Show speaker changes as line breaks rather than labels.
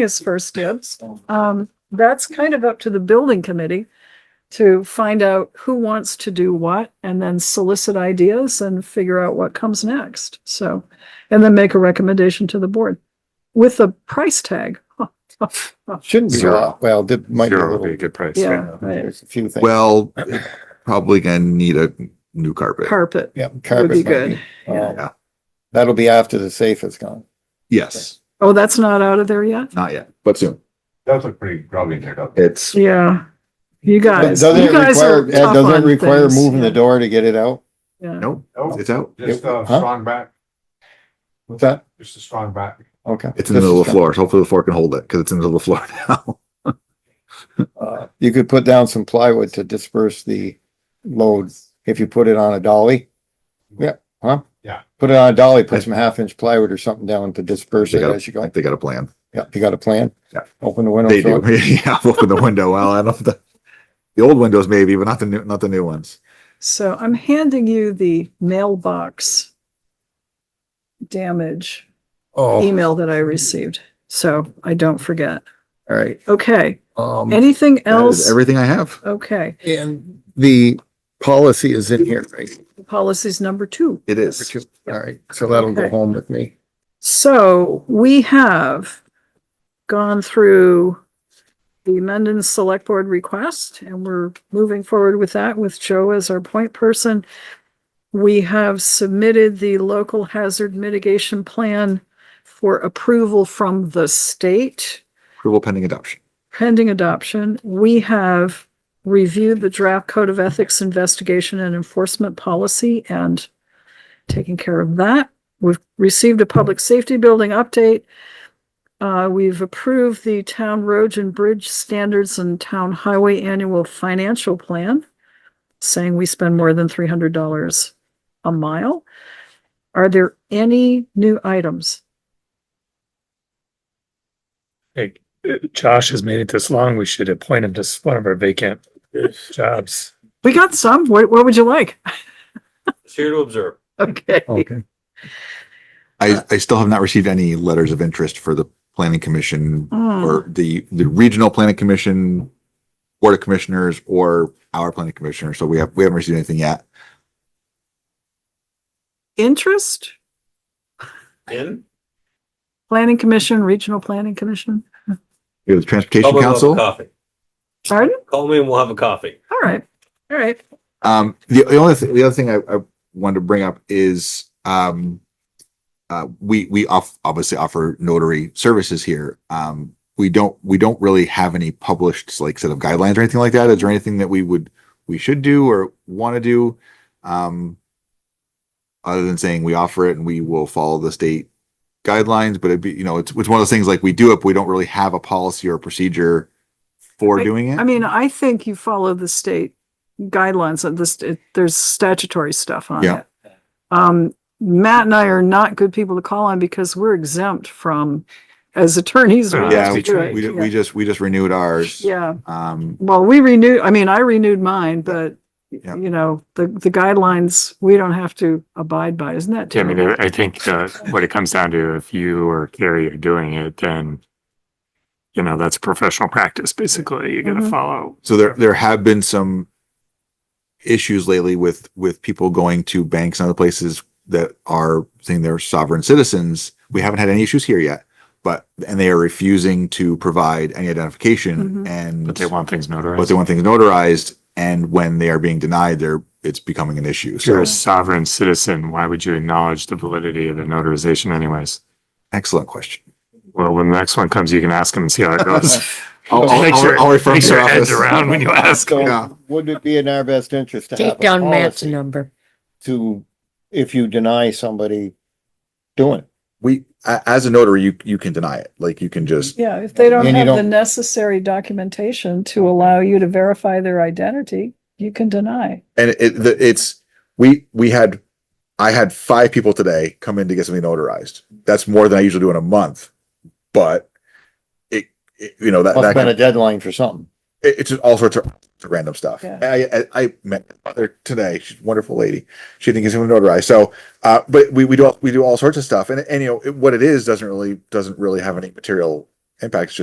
is first dibs. Um, that's kind of up to the building committee to find out who wants to do what and then solicit ideas and figure out what comes next. So, and then make a recommendation to the board with a price tag.
Shouldn't be a
Zero.
lot. Well, there might be a
Zero would be a
little.
good price.
Yeah, right.
There's a few things.
Well, probably gonna need a new carpet.
Carpet.
Yeah.
Would
carpet
be
might
good.
um,
Yeah.
That'll be after the safe is gone.
Yes,
Oh, that's not out of there yet?
not yet, but soon.
That's a pretty grubby pickup.
It's,
Yeah. You
But
guys,
Doesn't
you
it
guys
require,
are
Ed,
tough
doesn't
on
it require
things.
moving the door to get it out?
Yeah.
no,
Nope,
it's out.
just a
Huh?
strong back,
What's that?
just a strong back.
Okay.
It's in the middle of the
Just a
floor. So Hopefully the floor can hold it because it's in the middle of the floor now.
second. Uh, You could put down some plywood to disperse the load if you put it on a dolly. Yeah, huh?
Yeah.
Put it on a dolly, put some half inch plywood or something down to disperse
They
it
got a-
as you go.
Like they got a plan.
Yeah, you got a plan?
Yeah.
Open the window.
They
throw
do.
it-
Yeah, open the window. Well, I don't, the, the old windows maybe, but not the new, not the new ones.
So I'm handing you the mailbox damage
Oh,
email that I received. So I don't forget.
all right.
Okay.
Um,
Anything
That is
else?
everything I have.
Okay.
and the policy is in here, right?
Policy's number two.
It
Number
is.
two. All right, so that'll go
Okay.
home with me.
So we have gone through the Mendon Select Board request and we're moving forward with that with Joe as our point person. We have submitted the local hazard mitigation plan for approval from the state
Approval pending adoption.
pending adoption. We have reviewed the draft code of ethics investigation and enforcement policy and taken care of that. We've received a public safety building update. Uh, we've approved the town roads and bridge standards and town highway annual financial plan, saying we spend more than three hundred dollars a mile. Are there any new items?
Hey, Josh has made it this long. We should appoint him to one of our vacant jobs.
We got some. What, what would you like?
It's here to observe.
Okay.
I, I still have not received any letters of interest for the planning commission
Hmm.
or the, the regional planning commission, board of commissioners, or our planning commissioner. So we have, we haven't received anything yet.
Interest?
In?
Planning Commission, Regional Planning Commission.
It was
Call
transportation
me and we'll have a
council.
Coffee.
Pardon?
Call me and we'll have a coffee.
All right. All right.
Um, the, the only, thi- the other thing I, I wanted to bring up is, um, uh, we, we off, obviously offer notary services here. Um, we don't, we don't really have any published like set of guidelines or anything like that. Is there anything that we would, we should do or want to do? Um, other than saying we offer it and we will follow the state guidelines, but it'd be, you know, it's, it's one of those things like we do it, but we don't really have a policy or procedure for doing it.
I mean, I think you follow the state guidelines on this, it- there's statutory stuff on
Yeah.
it. Um, Matt and I are not good people to call on because we're exempt from, as attorneys. we
Yeah,
have to do it.
we,
Yeah.
we just, we just renewed ours.
Yeah.
Um,
Well, we renewed, I mean, I renewed mine, but
Yeah.
you know, the, the guidelines, we don't have to abide by. Isn't that
Yeah, I mean,
terrible?
I think uh what it comes down to, if you or Carrie are doing it, then you know, that's professional practice, basically. You gotta
Mhm.
follow.
Mm-hmm. so there, there have been some issues lately with, with people going to banks and other places that are saying they're sovereign citizens. We haven't had any issues here yet, but, and they are refusing to provide any identification
Mhm.
and,
But they want things
but
notarized.
they want things notarized. And when they are being denied, they're, it's becoming an issue.
If you're
So,
a sovereign citizen, why would you acknowledge the validity of the notarization anyways?
excellent question.
Well, when the next one comes, you can ask them and see how it goes.
I'll, I'll,
Make sure-
I'll- I'll refer
Make
to
sure
your
your head's
office.
around when you ask.
Yeah.
So would it be in our best interest to have
Take
a
down Matt's
policy
number.
to, if you deny somebody doing it?
We, a- as a notary, you, you can deny it. Like you can just
Yeah, if they don't
And you
have the
don't-
necessary documentation to allow you to verify their identity, you can deny.
and it the, it's we we had I had five people today come in to get something notarized. That's more than I usually do in a month, but it, it you know that,
Must
that
have been
kind
a
of,
deadline for something.
it, it's just all sorts of random stuff.
Yeah.
I, I I met her today. She's a wonderful lady. She didn't get something notarized. So, uh, but we we do all- we do all sorts of stuff, and and you know it, what it is doesn't really doesn't really have any material impacts